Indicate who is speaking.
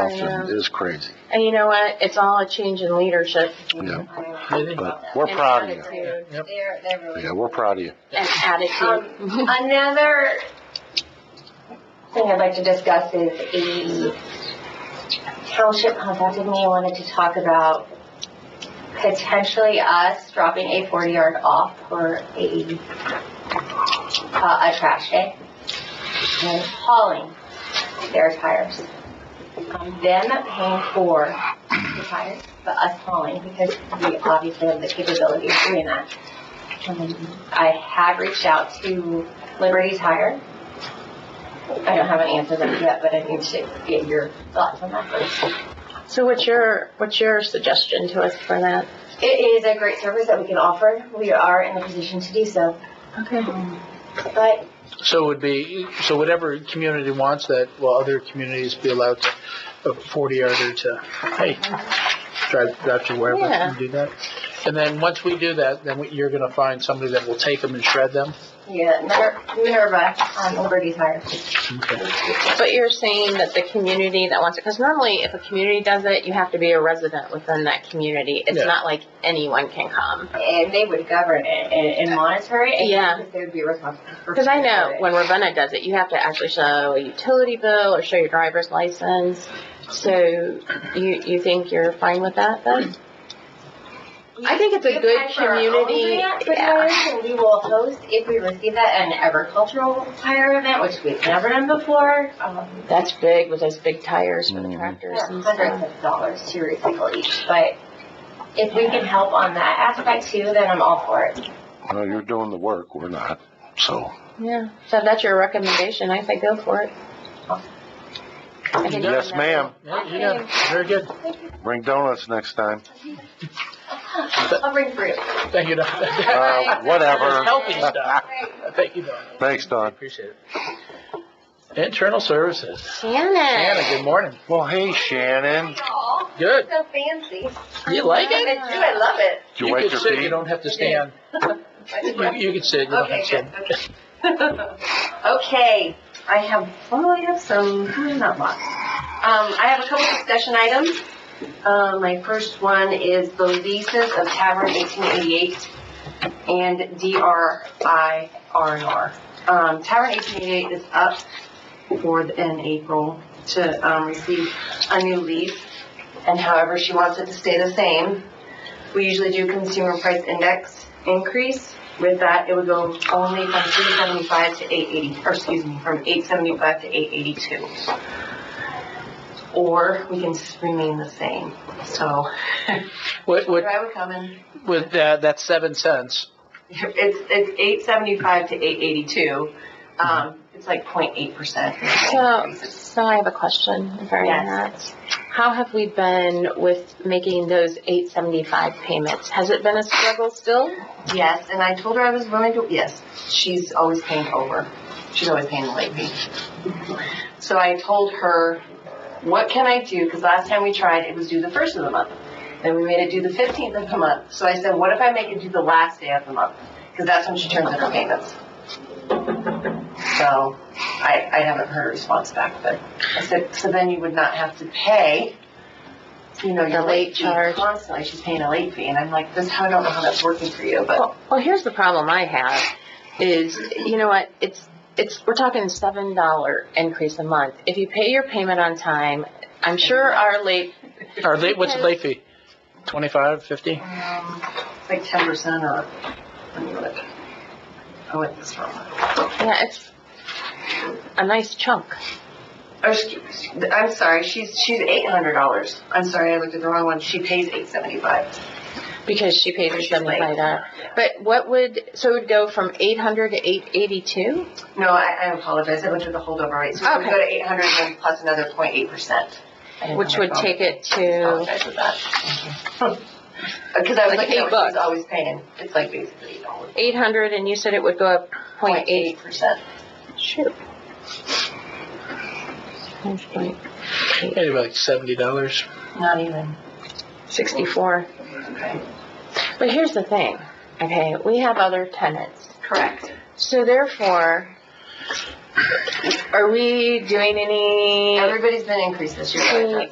Speaker 1: often
Speaker 2: know.
Speaker 1: is crazy.
Speaker 2: And you know what? It's all a change in leadership.
Speaker 1: Yeah.
Speaker 3: Maybe.
Speaker 1: But we're proud of you.
Speaker 2: Attitude.
Speaker 3: Yep.
Speaker 4: They're, they're really.
Speaker 1: Yeah, we're proud of you.
Speaker 2: And
Speaker 4: Um,
Speaker 2: attitude.
Speaker 4: Another thing I'd like to discuss is a township contacted me, and wanted to talk about potentially us dropping a forty yard off for a, uh, a trash day and hauling their tires. Um, Them paying for the tires, but us hauling because we obviously have the capability of doing that. Um, I have reached out to Liberty Tire. I don't have an answer as of yet, but I need to get your thoughts on that first.
Speaker 2: So what's your, what's your suggestion to us for that?
Speaker 4: It is a great service that we can offer. We are in a position to do so.
Speaker 2: Okay.
Speaker 4: But
Speaker 3: So it would be, so whatever community wants that, will other communities be allowed to, a forty yarder to, hey, drive, drive to wherever
Speaker 2: Yeah.
Speaker 3: and do that? And then, once we do that, then we- you're gonna find somebody that will take them and shred them?
Speaker 4: yeah, Miner- Minerva um, on Liberty Tire.
Speaker 3: Okay.
Speaker 2: But you're saying that the community that wants it, because normally if a community does it, you have to be a resident within that community. It's
Speaker 3: Yeah.
Speaker 2: not like anyone can come.
Speaker 4: And they would govern it and, and monitor it. and
Speaker 2: Yeah.
Speaker 4: They would be responsible. for-
Speaker 2: Because I
Speaker 4: for
Speaker 2: know
Speaker 4: it.
Speaker 2: when Ravenna does it, you have to actually show a utility bill or show your driver's license. So you, you think you're fine with that then? I think it's a
Speaker 4: We
Speaker 2: good
Speaker 4: apply for our own
Speaker 2: community,
Speaker 4: grant for
Speaker 2: yeah.
Speaker 4: tires, and we will host, if we receive that, an agricultural tire event, which we've never done before. Um,
Speaker 2: That's big with those big tires for the
Speaker 1: Mhm.
Speaker 2: tractors
Speaker 4: yeah,
Speaker 2: and
Speaker 4: Hundreds
Speaker 2: stuff.
Speaker 4: of dollars to recycle each, but if we can help on that aspect too, then I'm all for it.
Speaker 1: Well, you're doing the work, we're not, so.
Speaker 2: Yeah, so if that's your recommendation, I say go for it. I think
Speaker 1: Yes,
Speaker 2: that's-
Speaker 1: ma'am.
Speaker 3: Yeah, you got it. Very good.
Speaker 1: Bring donuts next time.
Speaker 4: I'll bring fruit.
Speaker 3: Thank you, Don.
Speaker 1: Uh, whatever.
Speaker 3: Healthy stuff. Thank you, Don.
Speaker 1: Thanks, Don.
Speaker 3: Appreciate it. Internal Services. Anna,
Speaker 2: Shannon.
Speaker 3: good morning.
Speaker 1: Well, hey, Shannon.
Speaker 4: Aw,
Speaker 3: Good.
Speaker 4: so fancy.
Speaker 3: You like
Speaker 4: I do,
Speaker 3: it?
Speaker 4: I love it.
Speaker 1: Did you wipe
Speaker 3: could
Speaker 1: your
Speaker 3: sit, You
Speaker 1: feet?
Speaker 3: don't have to stand.
Speaker 4: I just
Speaker 3: You,
Speaker 4: want-
Speaker 3: you can sit, you don't
Speaker 4: Okay,
Speaker 3: have to
Speaker 4: good,
Speaker 3: stand.
Speaker 4: okay. Okay, I have, well, I have some, who did not box? Um, I have a couple discussion items. Uh, my first one is the leases of Tavern eighteen eighty-eight and DRI R&R. Um, Tavern eighteen eighty-eight is up for, the- in April to, um, receive a new lease. And however, she wants it to stay the same. We usually do consumer price index increase. With that, it would go only from three seventy-five to eight eighty, or excuse me, from eight seventy-five to eight eighty-two. Or we can s- remain the same, so.
Speaker 3: What, what,
Speaker 4: Where I would come in,
Speaker 3: with, uh, that's seven cents.
Speaker 4: it's, it's eight seventy-five to eight eighty-two, um, it's like point eight percent.
Speaker 2: So, so I have a question regarding that. How have we been with making those eight seventy-five payments? Has it been a struggle still?
Speaker 4: Yes, and I told her I was willing to, yes, she's always paying over. She's always paying the late fee. So I told her, what can I do? Because last time we tried, it was due the first of the month. Then we made it due the fifteenth of the month. So I said, what if I make it due the last day of the month? Because that's when she turns in her payments. So I, I haven't heard a response back, but I said, so then you would not have to pay, you know, your
Speaker 2: The
Speaker 4: late
Speaker 2: late
Speaker 4: fee
Speaker 2: charge.
Speaker 4: constantly. She's paying a late fee. And I'm like, this, I don't know how that's working for you, but.
Speaker 2: Well, well, here's the problem I have is, you know what, it's, it's, we're talking seven dollar increase a month. If you pay your payment on time, I'm sure our late,
Speaker 3: Or late, what's the late fee? Twenty-five, fifty?
Speaker 4: Um, it's like ten percent or, let me look. I went this wrong.
Speaker 2: yeah, it's a nice chunk.
Speaker 4: Or, excuse- Oh, I'm sorry, she's, she's eight hundred dollars. I'm sorry, I looked at the wrong one. She pays eight seventy-five.
Speaker 2: Because she pays her
Speaker 4: Because she's late.
Speaker 2: seventy-five dollar. But what would, so it would go from eight hundred to eight eighty-two?
Speaker 4: No, I, I apologize. I looked at the holdover rate. So we
Speaker 2: Okay.
Speaker 4: go to eight hundred and plus another point eight percent.
Speaker 2: Which would take it to,
Speaker 4: Apologize for that. Because I was
Speaker 2: Like
Speaker 4: looking
Speaker 2: eight
Speaker 4: at what
Speaker 2: bucks.
Speaker 4: she's always paying. It's like basically eight dollars.
Speaker 2: eight hundred and you said it would go up point eight.
Speaker 4: percent.
Speaker 2: Shoot.
Speaker 3: Maybe like seventy dollars.
Speaker 4: Not even.
Speaker 2: Sixty-four.
Speaker 4: Okay.
Speaker 2: But here's the thing, okay, we have other tenants.
Speaker 4: Correct.
Speaker 2: So therefore,
Speaker 4: Are we doing any?
Speaker 2: Everybody's been increased this year. though.
Speaker 4: Mm,